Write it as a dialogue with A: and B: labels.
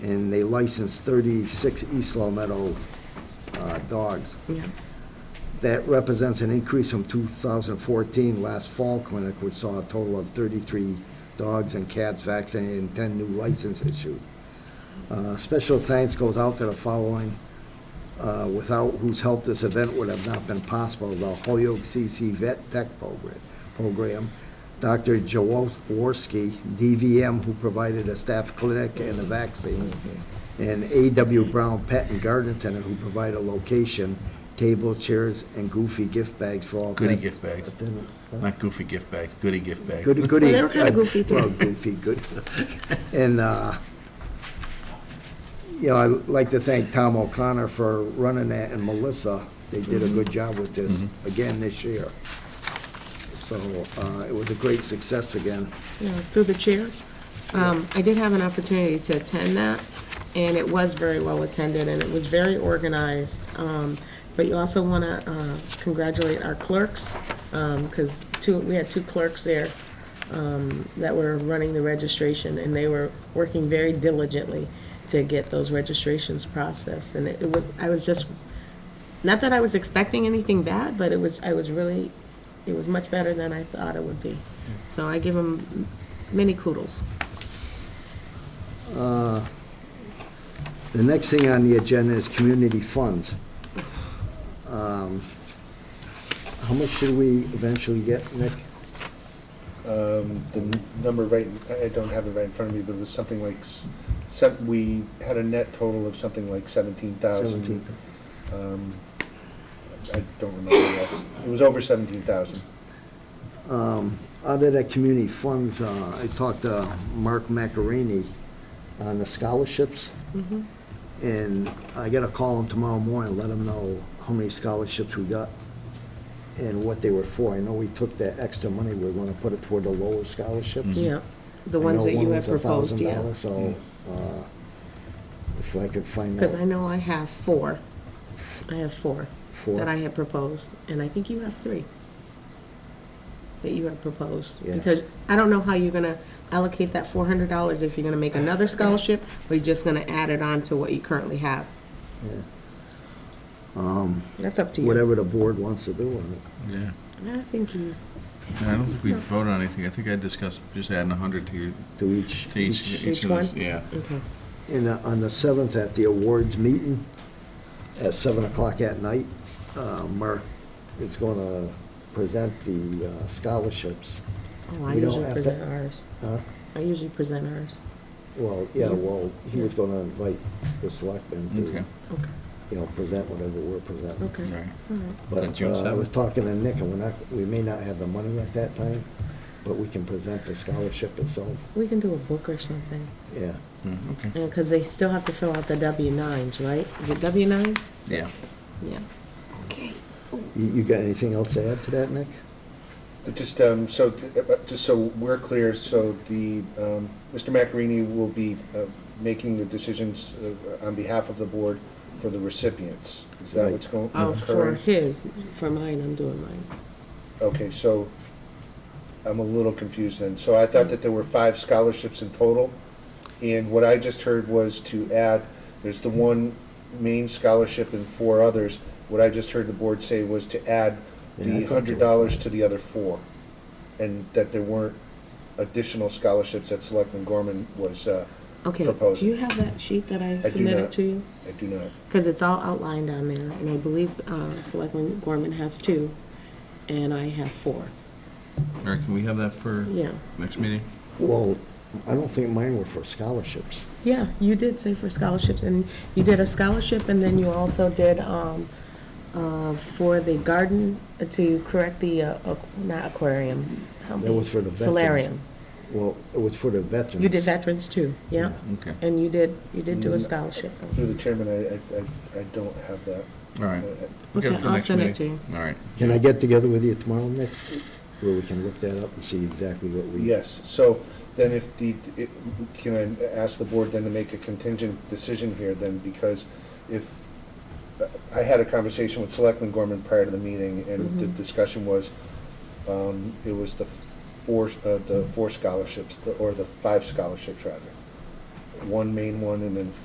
A: and they licensed 36 East Long Meadow uh, dogs.
B: Yeah.
A: That represents an increase from 2014, last fall clinic, which saw a total of 33 dogs and cats vaccinated and 10 new license issued. Uh, Special thanks goes out to the following, uh, without whose help this event would have not been possible. The Holyoke CC Vet Tech Program- Program, Dr. Jaworski, DVM, who provided a staff clinic and a vaccine, and A.W. Brown Pet and Garden Center, who provided a location, table, chairs, and goofy gift bags for all.
C: Goodie
A: pet
C: gift bags.
A: attendant- huh?
C: Not goofy gift bags, goody gift bags.
A: Goody, goody.
B: Well, they were kinda goofy, too.
A: Well, goofy, good. And, uh, you know, I'd like to thank Tom O'Connor for running that, and Melissa, they did a
B: Mm-hmm.
A: good job with this, again this year. So, uh, it was a great success again.
B: you know, through the chair. Um, I did have an opportunity to attend that, and it was very well attended, and it was very organized. Um, But you also want to congratulate our clerks, because two, we had two clerks there um, that were running the registration, and they were working very diligently to get those registrations processed. And it it was, I was just, not that I was expecting anything bad, but it was, I was really, it was much better than I thought it would be. So I give them many kudos.
A: The next thing on the agenda is community funds. Um, How much should we eventually get, Nick?
D: Um, the n- number right, I I don't have it right in front of me, but it was something like, s- se- we had a net total of something like seventeen thousand.
A: Seventeen.
D: Um, I don't remember, yes, it was over seventeen thousand.
A: Other than community funds, uh, I talked to Mark Macarini on the scholarships.
B: Mm-hmm.
A: And I gotta call him tomorrow morning, let him know how many scholarships we got and what they were for. I know we took that extra money, we are gonna put it toward the lower scholarships.
B: Mm-hmm. Yeah, the
A: Mhm. I
B: ones
A: know
B: that
A: one
B: you have
A: was
B: proposed, yeah. Mm.
A: $1,000, So, uh, if I could find
B: Because I
A: out
B: know I have four. I have four that I
A: for,
B: had proposed, and I think you have three that you have proposed.
A: Yeah.
B: Because I don't know how you're going to allocate that four hundred dollars if you're going to make another scholarship, or you're just going to add it on to what you currently have. That's up to you.
A: whatever the board wants to do on it.
C: Yeah.
B: I think you,
C: No, I don't think we voted on anything. I think I discussed just adding a hundred to, your-
A: To each,
C: to each,
B: Each
C: each of those,
B: one?
C: yeah.
B: okay.
A: And uh, on the 7th, at the awards meeting, at 7 o'clock at night, uh, Mark is going to present the uh, scholarships.
B: Oh, I
A: We don't
B: usually
A: have to-
B: present ours.
A: Huh?
B: I usually present ours.
A: Well, yeah, well, he was going to invite the selectmen to,
C: Okay.
B: Okay,
A: you know, present whatever we're presenting.
B: okay.
C: Right.
B: All right.
A: But
C: That's June
A: uh, I
C: 7th?
A: was talking to Nick, and we're not, we may not have the money at that time, but we can present the scholarship itself,
B: We can do a book or something,
A: yeah.
C: Yeah, Okay.
B: because they still have to fill out the W-9s, right? Is it W-9?
C: Yeah.
B: Yeah. Okay.
A: You you got anything else to add to that, Nick?
D: Just, um, so, th- uh, just so we're clear, so the, um, Mr. Macarini will be uh, making the decisions uh, on behalf of the board for the recipients. Is that what's going,
B: Oh, for
D: occurring?
B: his, for mine, I'm doing mine.
D: Okay, so I'm a little confused then. So I thought that there were five scholarships in total, and what I just heard was to add, there's the one main scholarship and four others. What I just heard the board say was to add
A: Yeah, I
D: the
A: thought there
D: hundred dollars to the other four, and that there weren't additional scholarships that Selectman Gorman was, uh,
B: Okay,
D: Proposed.
B: do you have that sheet that I
D: do
B: submitted
D: not.
B: to you?
D: I do not.
B: Because it's all outlined on there, and I believe uh, Selectman Gorman has two, and I have four.
C: All right, can we have that for
B: Yeah.
C: next meeting?
A: Well, I don't think mine were for scholarships.
B: Yeah, you did say for scholarships, and you did a scholarship, and then you also did um, uh, for the garden, to correct the, uh, aqu- not aquarium. help
A: That
B: me.
A: was for the veterans.
B: Solarium.
A: Well, it was for the veterans.
B: You did veterans too, yeah?
C: Okay.
B: And you did, you did do a scholarship.
D: Through the chairman, I, I- I, I don't have that.
C: All right.
D: Uh,
C: We'll get it
B: Okay,
C: for
B: I'll
C: next
B: send it
C: meeting.
B: to
C: All right.
A: Can I get together with you tomorrow, Nick, where we can look that up and see exactly what we?
D: Yes, so then if the, it- can I ask the board then to make a contingent decision here then? Because if, I had a conversation with Selectman Gorman prior to the meeting, and the discussion was, um, it was the four, uh, the four scholarships, the- or the five scholarships rather. one main one, and then